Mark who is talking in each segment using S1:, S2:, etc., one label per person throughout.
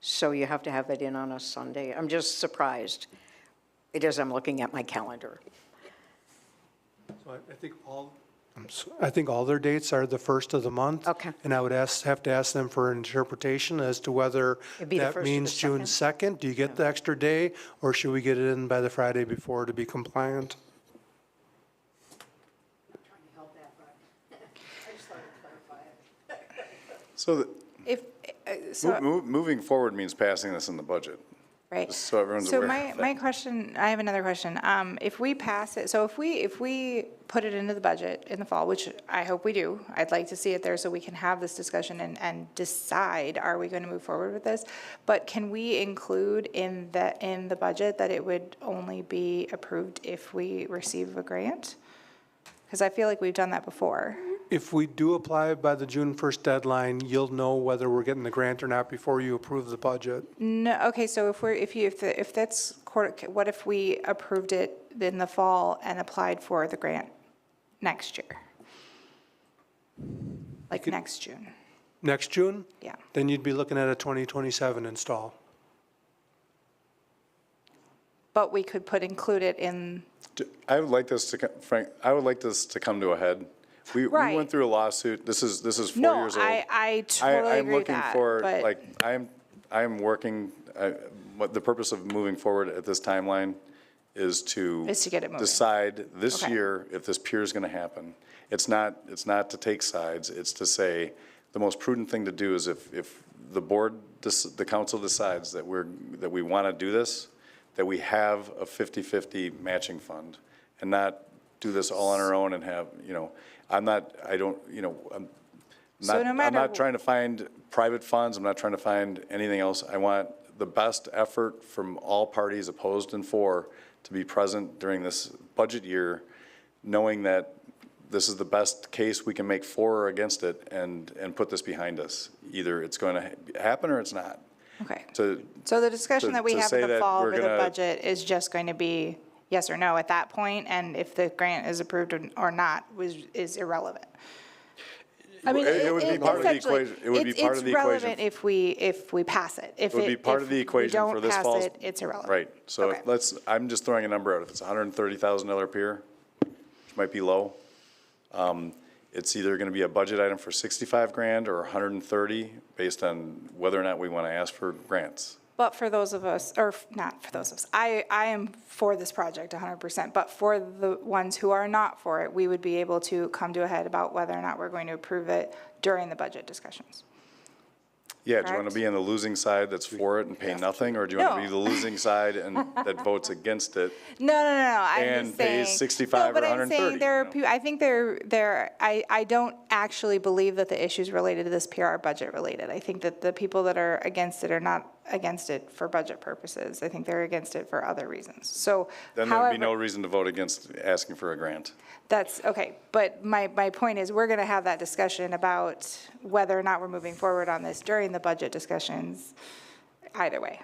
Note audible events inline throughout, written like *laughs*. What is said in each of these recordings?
S1: so you have to have it in on a Sunday. I'm just surprised. It is, I'm looking at my calendar.
S2: So I- I think all, I'm so- I think all their dates are the first of the month.
S1: Okay.
S2: And I would ask, have to ask them for an interpretation as to whether
S1: It'd be the
S2: that
S1: first or the
S2: means June 2nd. Do you get the extra day, or should we get it in by the Friday before to be compliant?
S3: So the-
S4: If, uh,
S3: mo-
S4: so,
S3: mo- moving forward means passing this in the budget.
S4: right.
S3: just so everyone's
S4: So
S3: aware
S4: my,
S3: of
S4: my
S3: that.
S4: question, I have another question. Um, If we pass it, so if we, if we put it into the budget in the fall, which I hope we do, I'd like to see it there so we can have this discussion and, and decide, are we going to move forward with this? But can we include in the, in the budget that it would only be approved if we receive a grant? Because I feel like we've done that before.
S2: If we do apply by the June 1st deadline, you'll know whether we're getting the grant or not before you approve the budget.
S4: No, okay, so if we're, if you, if, the- if that's, quarter- what if we approved it in the fall and applied for the grant next year? Like next June,
S2: Next June,
S4: yeah.
S2: then you'd be looking at a 2027 install.
S4: But we could put, include it in,
S3: D- I would like this to, co- Frank, I would like this to come to a head. We, we
S4: Right.
S3: went through a lawsuit. This is, this is four
S4: no,
S3: years old.
S4: I, I totally
S3: I, I'm
S4: agree with
S3: looking
S4: that,
S3: for,
S4: but,
S3: like, I'm, I'm working, I- what the purpose of moving forward at this timeline is to.
S4: Is to get it moving.
S3: Decide this
S4: Okay.
S3: year if this pier is going to happen. It's not, it's not to take sides, it's to say, the most prudent thing to do is if, if the board, dec- the council decides that we're, that we want to do this, that we have a 50-50 matching fund and not do this all on our own and have, you know, I'm not, I don't, you know, I'm
S4: So
S3: not-
S4: no
S3: I'm
S4: matter
S3: not
S4: wh-
S3: trying to find private funds, I'm not trying to find anything else. I want the best effort from all parties opposed and for to be present during this budget year, knowing that this is the best case we can make for or against it and, and put this behind us. Either it's going to happen or it's not.
S4: okay.
S3: To,
S4: So the discussion
S3: to-
S4: that we
S3: to
S4: have
S3: say
S4: in the
S3: that
S4: fall
S3: we're
S4: over the
S3: gonna-
S4: budget is just going to be yes or no at that point, and if the grant is approved or- or not was, is irrelevant. I mean,
S3: It- it would be part of the
S4: essentially,
S3: equation- it would be
S4: it's-
S3: part of the equation.
S4: It's relevant if we, if we pass it. If
S3: It would be part of the equation for this
S4: If
S3: fall's.
S4: we don't pass it, it's irrelevant.
S3: Right, so
S4: Okay.
S3: let's, I'm just throwing a number out, if it's a hundred and thirty thousand dollar pier, which might be low, um, it's either gonna be a budget item for sixty-five grand or a hundred and thirty, based on whether or not we wanna ask for grants.
S4: But for those of us, or f- not for those of us, I, I am for this project 100%, but for the ones who are not for it, we would be able to come to a head about whether or not we're going to approve it during the budget discussions.
S3: Yeah, do you wanna
S4: Correct.
S3: be on the losing side that's for it and pay nothing, or do you wanna be
S4: No.
S3: the losing side and that votes against it?
S4: No, no, no, no, I'm
S3: And
S4: just saying.
S3: pays 65 or
S4: No, but I'm
S3: 130,
S4: saying there are,
S3: you know.
S4: peo- I think there, there, I, I don't actually believe that the issues related to this PR are budget related. I think that the people that are against it are not against it for budget purposes. I think they're against it for other reasons. So
S3: Then there'd be no
S4: however-
S3: reason to vote against asking for a grant.
S4: That's, okay, but my, my point is, we're gonna have that discussion about whether or not we're moving forward on this during the budget discussions, either way.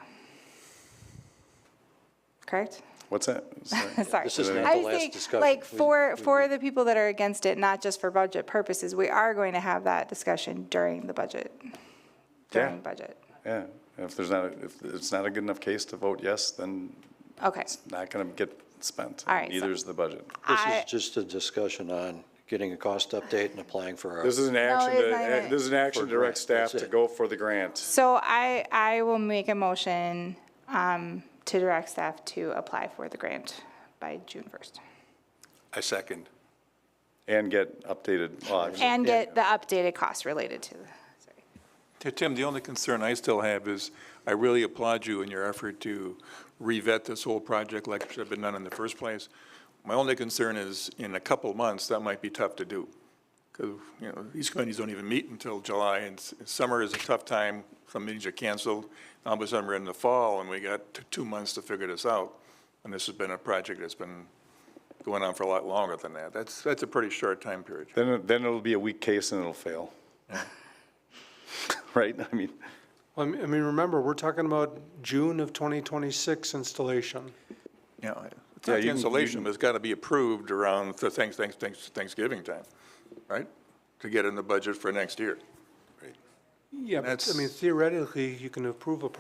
S4: Correct?
S3: What's that? Sorry.
S4: *laughs* Sorry.
S5: This is not
S4: I
S5: the
S4: was
S5: last
S4: saying,
S5: discussion.
S4: Like,
S5: We-
S4: for, for the people that are against it, not just for budget purposes, we are going to have that discussion during the budget, during budget.
S3: Yeah, if there's not, a- if it's not a good enough case to vote yes, then
S4: Okay.
S3: it's not going to get spent.
S4: All right, so-
S3: Neither is the budget.
S5: This
S4: I-
S5: is just a discussion on getting a cost update and applying for our.
S3: This is an action,
S4: it's
S3: to- uh,
S4: not even-
S3: this is an action to direct
S5: For grant,
S3: staff
S5: that's
S3: to
S5: it.
S3: go for the grant.
S4: So I, I will make a motion um, to direct staff to apply for the grant by June 1st.
S6: I second.
S3: And get updated, well, actually,
S4: And get the updated costs related to, sorry.
S6: T- Tim, the only concern I still have is, I really applaud you in your effort to revet this whole project like it should have been done in the first place. My only concern is, in a couple months, that might be tough to do. Because, you know, these committees don't even meet until July, and s- summer is a tough time, some meetings are canceled. All of a sudden, we're in the fall, and we got t- two months to figure this out. And this has been a project that's been going on for a lot longer than that. That's, that's a pretty short time period.
S3: then, it- then it'll be a weak case and it'll fail. *laughs* Right? I mean,
S2: Well, I mean- I mean, remember, we're talking about June of 2026 installation.
S6: Yeah, I- it's
S3: Yeah, you
S6: not
S3: can- you
S6: cancellation, but it's got to be approved around the thanks, thanks, thanks, Thanksgiving time, right? To get in the budget for next year.
S2: Yeah, but I
S6: That's-
S2: mean theoretically, you can approve a project